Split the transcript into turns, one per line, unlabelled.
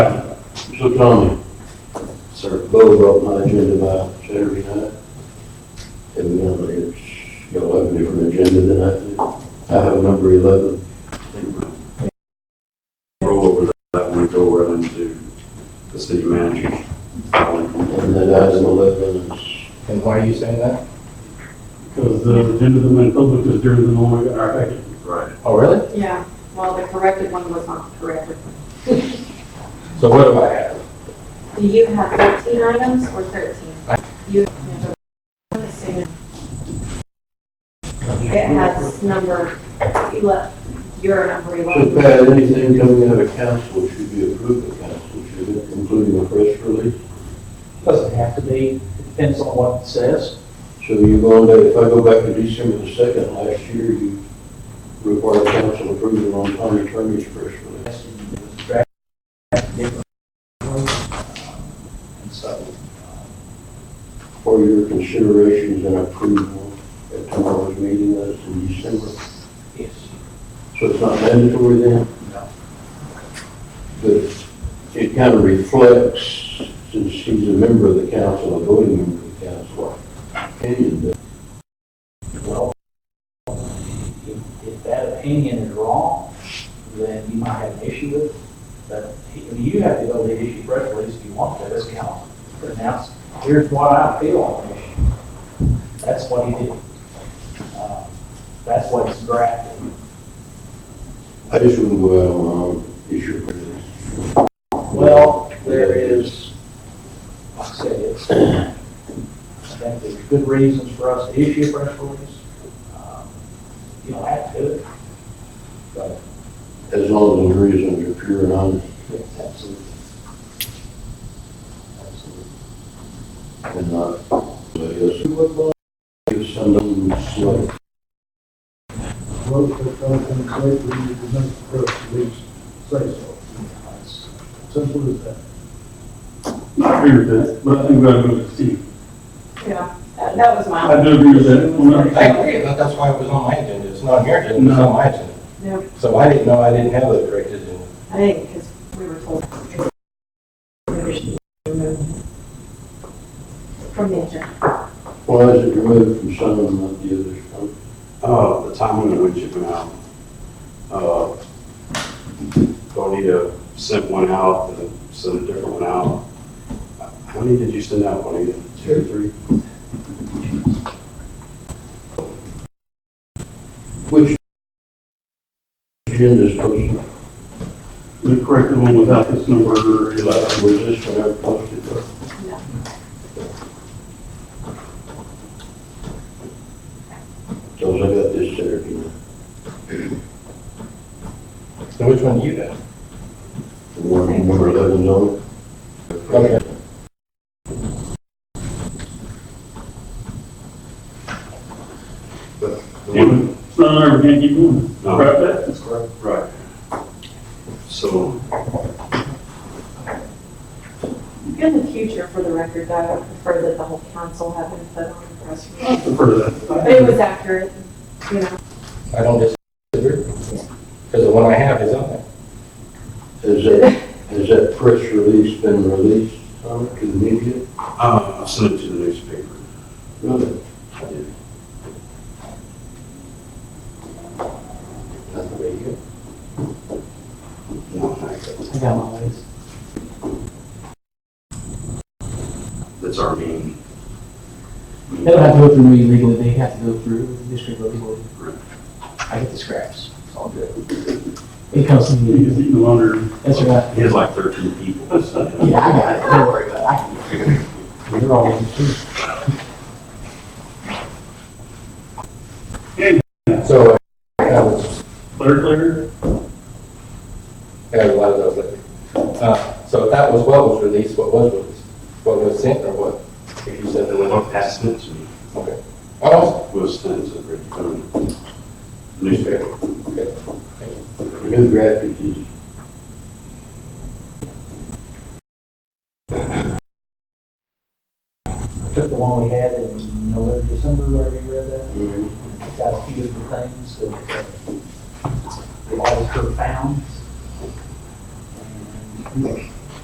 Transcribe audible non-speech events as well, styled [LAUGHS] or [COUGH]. Public comment. Sir, Bo brought my agenda by Saturday night. And we don't, it's, y'all have a different agenda than I do. I have number eleven.
roll over that one, go right into the city manager's filing.
And that item eleven is
And why are you saying that?
Because the agenda that went public is during the normal hour packet.
Right.
Oh, really?
Yeah, well, the corrected one was not corrected.
So what do I have?
Do you have 13 items or 13? You It has number 11, your number
So
11.
Pat, anything coming out of council should be approved by council, should it, including a press release?
Doesn't have to be, it depends on what it says.
So you're going to, if I go back to December the second last year, you required council approval on county attorney's press release.
Yes, it was drafted differently. And so,
For your considerations and approval at tomorrow's meeting, that's in December.
yes,
So it's not mandatory then,
no,
but it kind of reflects, since he's a member of the council, a voting member of the council, opinion that
well, if, if that opinion is wrong, then you might have an issue with it. But I mean, you have to go to issue press release if you want to, as council, but now, here's what I feel on the issue. That's what he did. Uh, That's what it's drafted.
I just wouldn't go out on my own issue.
Well, there is, like I said, it's, I think there's good reasons for us to issue a press release. Um, You don't have to do it, but
As long as the reasons are pure and honest
it's absolutely. Absolutely.
and not, I guess, give some of them slow.
vote that comes in safe, we need to make the press release say so.
That's-
Simple as that.
I agree with that, but I think we ought to go to Steve.
Yeah, that that was my.
I do agree with that. Well, no.
I agree, but that's why it was on my agenda, it's not on your agenda, it's
No.
on my agenda.
No,
So I didn't know I didn't have a correct agenda.
I think because we were told. From the agenda.
Why is it removed from some and not the others? I'm-
Uh, the timing in which it went out. Uh, Bonita sent one out, and then sent a different one out. How many did you send out, Bonita? Two or three?
Which agenda is posted?
The corrected one without this number eleven.
Was this one ever posted? So I got this Saturday night,
So which one do you have?
the one number eleven zone.
Okay.
The one-
It's not on there, we can't keep going.
No.
Right, Pat?
That's correct.
Right. So,
In the future, for the record, I would prefer that the whole council have input on the press
I
release.
prefer that.
It was accurate, you know.
I don't disagree, because the one I have is on there.
Has that, has that press release been released um, to the media?
uh, I sent it to the newspaper.
Really?
I did.
Not the media.
One night.
I got my ways.
That's our main.
They don't have to go through me legally, they have to go through the district legally. I get the scraps, it's all good. It comes to
You
me,
just eating longer.
that's all right.
He has like thirteen people. so, you
[LAUGHS]
know.
Yeah, I got it, don't worry about it, I can figure it out. You're all welcome too.
So I was
Clear, clear.
Yeah, a lot of those. but, uh, So that was what was released, what was released, what was sent, or what? If you said there
And
was,
what passed it to me
okay. Oh,
was things that were done. Newspaper.
okay.
The new graphic is
Took the one we had in November, December, where we read that, it's got a few different things that uh, the auditors found. And